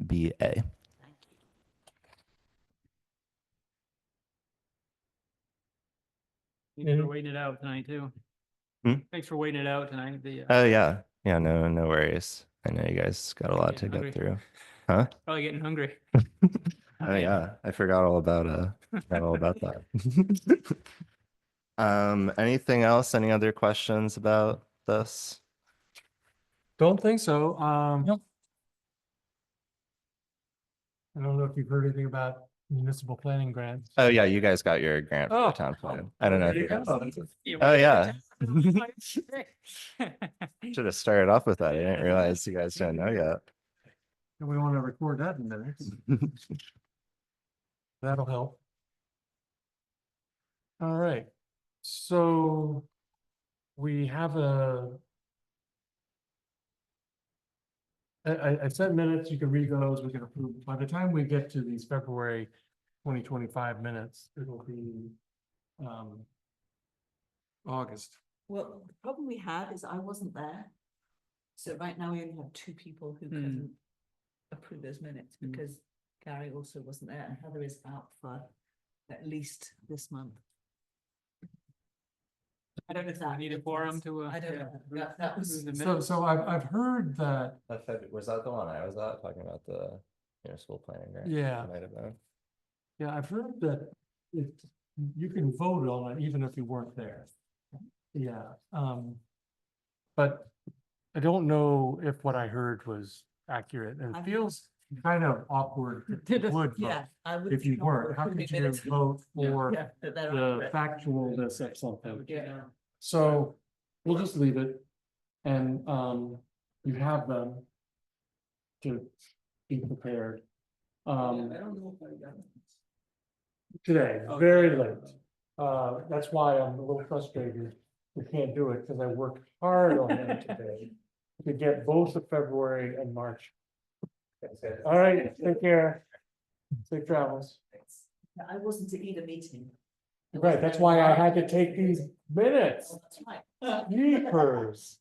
MBA. Thanks Mhm. for waiting it out tonight too. Mm-hmm. Hmm? Thanks for waiting it out tonight. The, uh, Oh yeah, yeah. No, no worries. I know you guys got a lot to Getting hungry. get through. probably getting hungry. Oh yeah, I forgot all about uh, forgot all about that. um, anything else? Any other questions about this? Don't think so, um. Nope. I don't know if you've heard anything about municipal planning grants. Oh yeah, you guys got your grant for Oh, the town plan. I don't know. if there you you guys go. Oh, yeah. should have started off with that. I didn't realize you guys don't know yet. And we want to record that in minutes. That'll help. All right, so we have a. I, I, I said minutes, you can read those, we can approve. By the time we get to these February twenty twenty-five minutes, it'll be, um, August. Well, the problem we had is I wasn't there. So right now we only have two people who Hmm. couldn't approve those minutes Hmm. because Gary also wasn't there and Heather is out for at least this month. I don't know if that. Need a quorum to, uh. I don't yeah, know. approve- That, that was, approve the So, minutes. so I've, I've heard that Was that the one I was at talking about the municipal planning grant? Yeah. Might have been. Yeah, I've heard that it, you can vote on it even if you weren't there. Yeah, um. But I don't know if what I heard was accurate and it I'm- feels kind of Um, awkward if you would vote. yeah, I would. If you not weren't, how approve the could you minutes. vote Yeah. for Yeah, that they're the accurate. factualness of something? Yeah. So we'll just leave it and um you have them. To be prepared. Um. Today, very late. Uh, that's why I'm a little frustrated. We can't do it because I worked hard on them today. To get both of February and March. All right, take care. Safe travels. But I wasn't at either meeting. I Right, wasn't that's there. why I had to take these minutes. Well, That's right. Jeepers.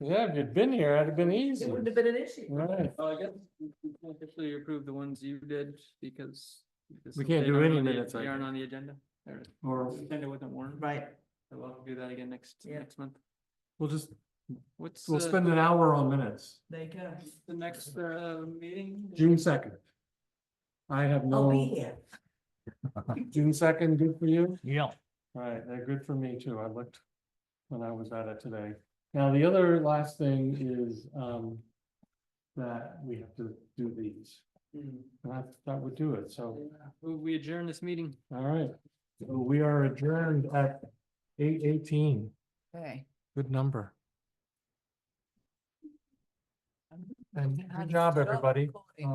Yeah, if you'd been here, it'd have been easy. It wouldn't have been an issue. Right. Well, Oh, I guess we we can't officially approve the ones you did because. because We can't they do aren't any on the- minutes, I They aren't think. on the agenda. Or Or the agenda wasn't warned. Right. So we'll do that again next, Yeah. next month. we'll just, What's, we'll uh, spend an hour on minutes, There you go. The next, uh, meeting? June second. I have I'll be no, here. June second, good for you? Yeah. Right, they're good for me too. I looked when I was at it today. Now, the other last thing is, um, that we have to do these. Mm. And that, that would do it. So, Will we adjourn this meeting? all right. So We are adjourned at eight eighteen. Okay. Good number. And How good does job, it go? everybody. Recording.